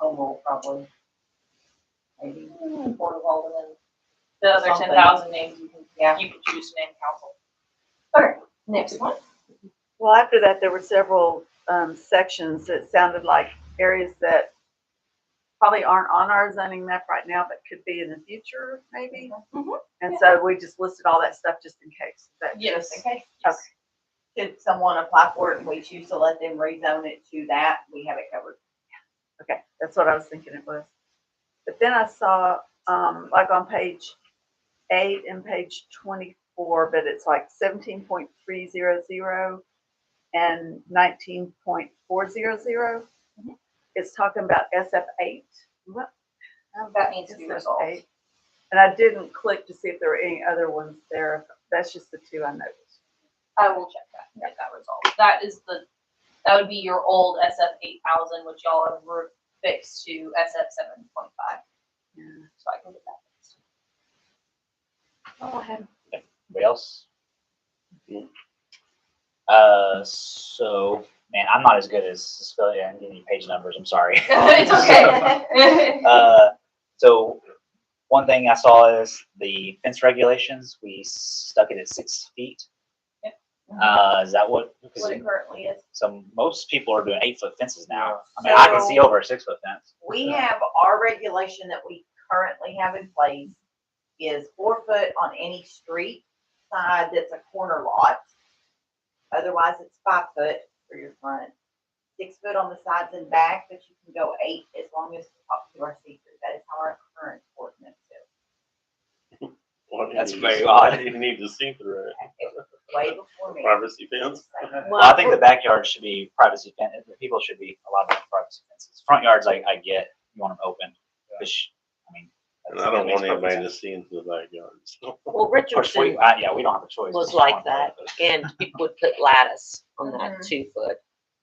total probably. Maybe Board of Alderman, The other Something. ten thousand names, you yeah. can, you can choose to name council. Next one. Well, after that, there were several um, sections that sounded like areas that probably aren't on our zoning map right now, but could be in the future, maybe. Mhm. And so we just listed all that stuff just in case. But Yes. Okay. yes. Should someone apply for it and we choose to let them rezone it to that, we have it covered. okay, that's what I was thinking it was. But then I saw, um, like on page eight and page twenty-four, but it's like seventeen point three zero zero and nineteen point four zero zero. It's talking about SF eight. What That needs to be Yes, resolved. eight. And I didn't click to see if there were any other ones there. That's just the two I noticed. I will check that, and get that resolved. That is the, that would be your old SF eight thousand, which y'all have re- fixed to SF seven point five. Yeah. So I can get that fixed. Oh, I had. Anybody else? Uh, so, man, I'm not as good as spelling and giving you page numbers. I'm sorry. It's okay. Uh, so one thing I saw is the fence regulations. We stuck it at six feet. Yeah. Uh, is that what? What it currently is. So most people are doing eight foot fences now. I mean, I can see over a six foot fence. We have our regulation that we currently have in place is four foot on any street side that's a corner lot. Otherwise, it's five foot for your front, six foot on the sides and back, but you can go eight as long as it's up to our secret. That is how our current ordinance is. What do you That's need? very odd. Why do You need to see through it. It was way before me. Privacy fence. Well, I think the backyard should be privacy fence. The people should be allowed to have privacy fences. Front yards, I, I get. You want them open, which I mean. And I that don't makes want perfect anybody sense. to see into the backyard. so. Well, Of course, Richardson we, I, yeah, we don't have a choice. was like that, and people would put lattice on that Mhm. two foot.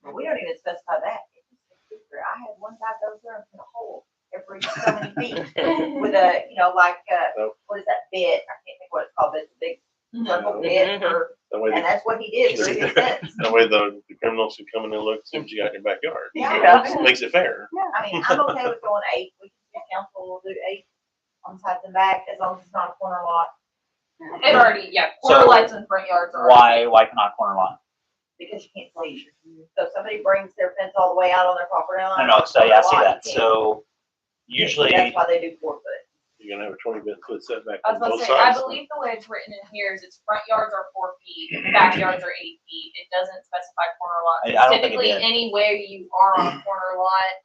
But We don't even specify that. It's just a secret. I had one guy go there and put a hole every so many feet with a, you know, like, uh, Nope. what is that bit? I can't think what it's called, but it's a big Mm-hmm. circle Mhm. bit or, That way, and the- that's what he did for his fence. that way the the criminals who come in and look, see what you got in your backyard. Yeah. So it Makes it fair. I mean, I'm okay with going eight. We can, the council will do eight on sides and back as long as it's not a corner lot. It already, yeah, corner So, lights and front yards are. Why, why not corner lot? Because you can't see. So if somebody brings their fence all the way out on their property No, line. no, so yeah, I see corner lot, you that. can't. So usually, That's why they do four foot. You're gonna have a twenty foot setback I was about on to both say, I sides. believe the way it's written in here is it's front yards are four feet, backyards are eight feet. It doesn't specify corner lots. I- I don't think it Typically, did. anywhere you are on a corner lot,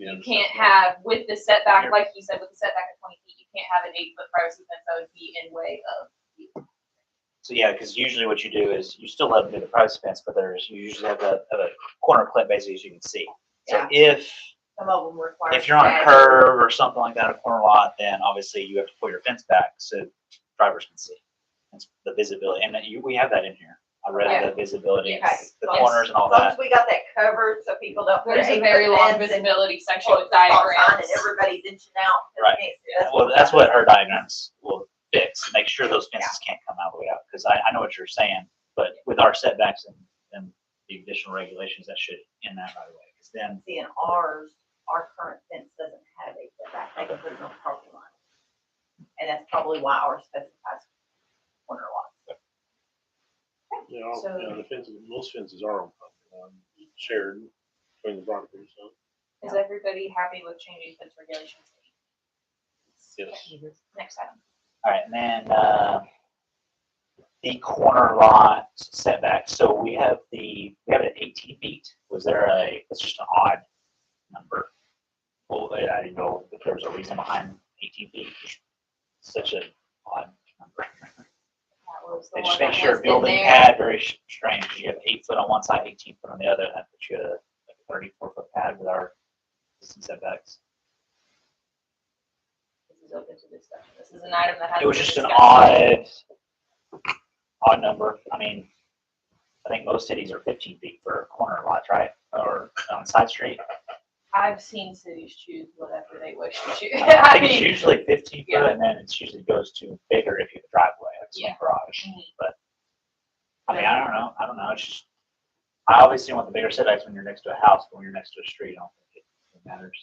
Yeah, you it's can't not- have, with the setback, Yeah. like you said, with the setback of twenty feet, you can't have an eight foot privacy fence that would be in way of. so yeah, because usually what you do is you still let them do the privacy fence, but there's, you usually have a, have a corner clip basically as you can see. So Yeah. if, Some of them require. if you're on a that. curve or something like that, a corner lot, then obviously you have to pull your fence back so drivers can see. That's the visibility, and that you, we have that in here. I read the visibility, Okay. the Yes. corners and all As long that. as we got that covered so people don't. put There's a eight foot very long fence and visibility section pull with the stop sign diagrams. And everybody's inching out. Right. Yeah, well, that's what her diagrams will fix, make sure those fences can't come out of the way out, because I, I know what you're saying, but with our setbacks and, and the additional regulations, that should end that right away, because then, See in ours, our current fence doesn't have a setback, they can put it on property line. And that's probably why ours specifies corner lot. You know, So- you know, the fences, most fences are on property line, shared between the properties, so. Is everybody happy with changing fence regulations? Yes. Next item. all right, and then, uh, the corner lot setback, so we have the, we have it at eighteen feet, was there a, it's just an odd number. Well, I, I didn't know if there was a reason behind eighteen feet, such an odd number. That was the They one just that make sure has been building there. pad very sh- strange. You have eight foot on one side, eighteen foot on the other, and that puts you at a like thirty-four foot pad with our distance setbacks. This is open to discussion. This is an item that has. It was just an odd. odd, odd number. I mean, I think most cities are fifteen feet for corner lots, right? Or on side street. I've seen cities choose whatever they wish to choose. I I think it's mean, usually fifteen yeah. foot, and then it's usually goes to bigger if you have a driveway, like Yeah. some garage. Mhm. But, I mean, I don't know, I don't know, it's just, I obviously want the bigger setbacks when you're next to a house, but when you're next to a street, I don't think it matters.